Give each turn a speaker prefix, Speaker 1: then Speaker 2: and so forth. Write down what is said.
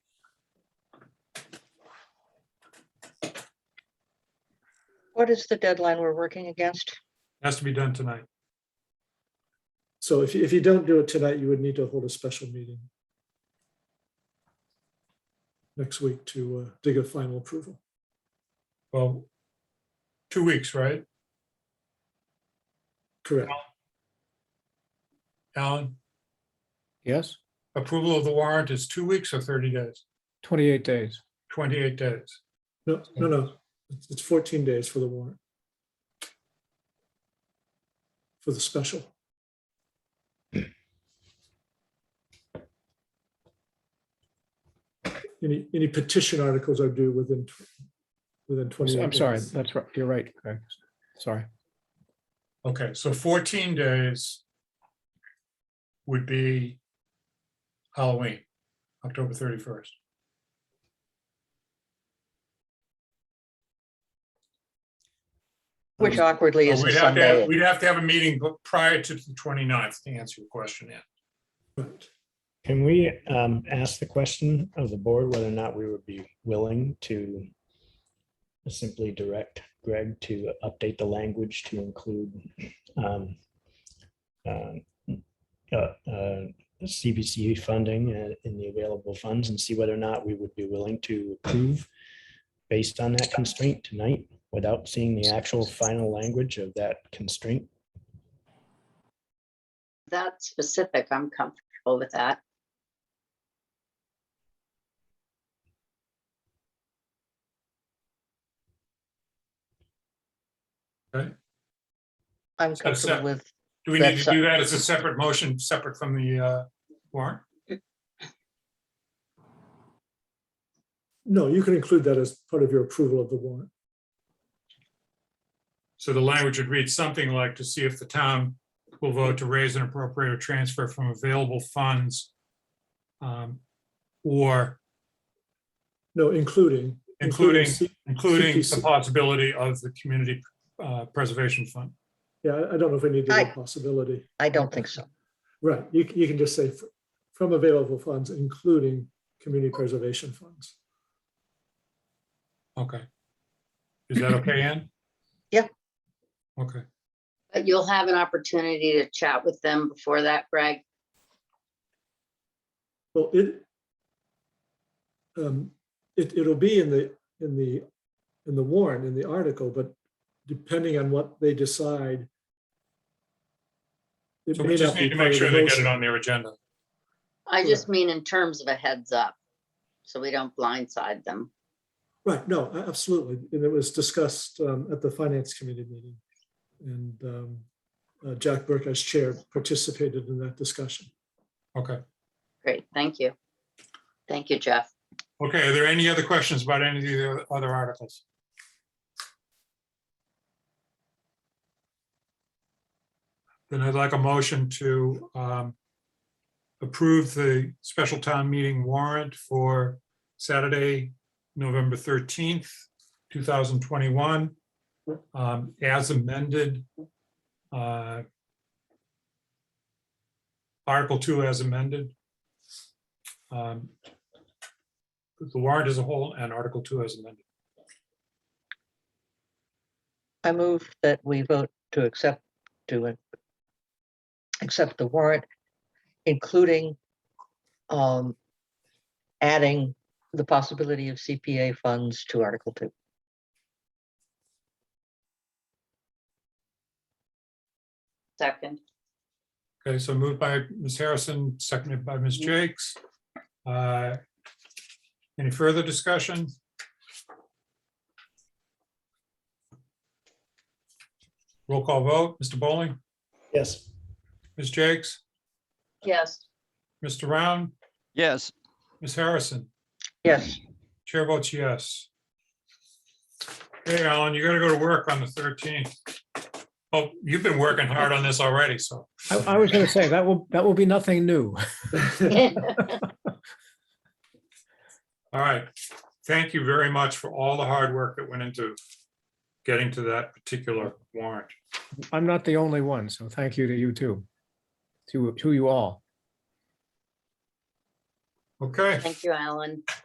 Speaker 1: What is the deadline we're working against?
Speaker 2: Has to be done tonight.
Speaker 3: So if, you- if you don't do it tonight, you would need to hold a special meeting next week to uh, dig a final approval.
Speaker 2: Well, two weeks, right,
Speaker 3: Correct.
Speaker 2: Alan?
Speaker 4: Yes,
Speaker 2: Approval of the warrant is two weeks or thirty days?
Speaker 4: twenty-eight days.
Speaker 2: Twenty-eight days.
Speaker 3: No, no, no. It's- It's 14 days for the warrant. For the special. Any, any petition articles are due within, tw- within 28
Speaker 4: I'm sorry,
Speaker 3: days.
Speaker 4: that's right, you're right, Craig. Sorry,
Speaker 2: Okay, so fourteen days would be Halloween, October thirty-first.
Speaker 1: Which awkwardly is a
Speaker 2: We'd Oh, have to, have-
Speaker 1: Sunday.
Speaker 2: we'd have to have a meeting bu- prior to the 29th to answer your question, yeah.
Speaker 3: Right.
Speaker 5: Can we um, ask the question of the board whether or not we would be willing to simply direct Greg to update the language to include um, um, uh, uh, CBC funding uh, in the available funds and see whether or not we would be willing to approve based on that constraint tonight without seeing the actual final language of that constraint?
Speaker 6: that specific, I'm comfortable with that.
Speaker 1: I'm
Speaker 2: So it's
Speaker 1: comfortable
Speaker 2: not-
Speaker 1: with,
Speaker 2: Do we need
Speaker 1: That's-
Speaker 2: to do that as a separate motion, separate from the uh, warrant?
Speaker 3: No, you can include that as part of your approval of the warrant.
Speaker 2: So the language would read something like to see if the town will vote to raise and appropriate or transfer from available funds. um, Or
Speaker 3: No, including.
Speaker 2: including,
Speaker 3: C-
Speaker 2: including the
Speaker 3: CPC.
Speaker 2: possibility of the community uh, preservation fund.
Speaker 3: Yeah, I- I don't know if we need to do
Speaker 1: I-
Speaker 3: a possibility.
Speaker 1: I don't think so.
Speaker 3: Right, you, c- you can just say fr- from available funds, including community preservation funds.
Speaker 2: Okay. Is that okay, Ann?
Speaker 1: Yeah.
Speaker 2: Okay,
Speaker 6: But you'll have an opportunity to chat with them before that, Greg.
Speaker 3: Well, it um, it, it'll be in the, in the, in the warrant, in the article, but depending on what they decide. it
Speaker 2: so
Speaker 3: may
Speaker 2: we just
Speaker 3: not be
Speaker 2: need to make
Speaker 3: part of the
Speaker 2: sure they get
Speaker 3: motion.
Speaker 2: it on their agenda.
Speaker 6: I just mean in terms of a heads up, so we don't blindside them.
Speaker 3: Right, no, a- absolutely. And it was discussed um, at the Finance Committee meeting. And um, uh, Jack Burke, as chair, participated in that discussion.
Speaker 2: Okay.
Speaker 6: Great, thank you. Thank you, Jeff.
Speaker 2: Okay, are there any other questions about any of the other articles? Then I'd like a motion to um, approve the special town meeting warrant for Saturday, November 13th, 2021, um, as amended. uh, Article 2 as amended. Um, the warrant as a whole and Article Two as amended.
Speaker 1: I move that we vote to accept, to it- accept the warrant, including um, adding the possibility of CPA funds to Article Two.
Speaker 6: Second,
Speaker 2: Okay, so moved by Ms. Harrison, seconded by Ms. Jakes. Uh, Any further discussion? Roll call vote, Mr. Bowling,
Speaker 5: Yes.
Speaker 2: Ms. Jakes,
Speaker 6: yes,
Speaker 2: Mr. Round,
Speaker 7: yes.
Speaker 2: Ms. Harrison,
Speaker 1: Yes,
Speaker 2: chair votes yes. Hey, Alan, you gotta go to work on the thirteenth. Oh, you've been working hard on this already, so.
Speaker 4: I, I was gonna say, that will, that will be nothing new.
Speaker 2: All right. Thank you very much for all the hard work that went into getting to that particular warrant.
Speaker 4: I'm not the only one, so thank you to you too. To, to you all.
Speaker 2: Okay,
Speaker 6: thank you, Alan.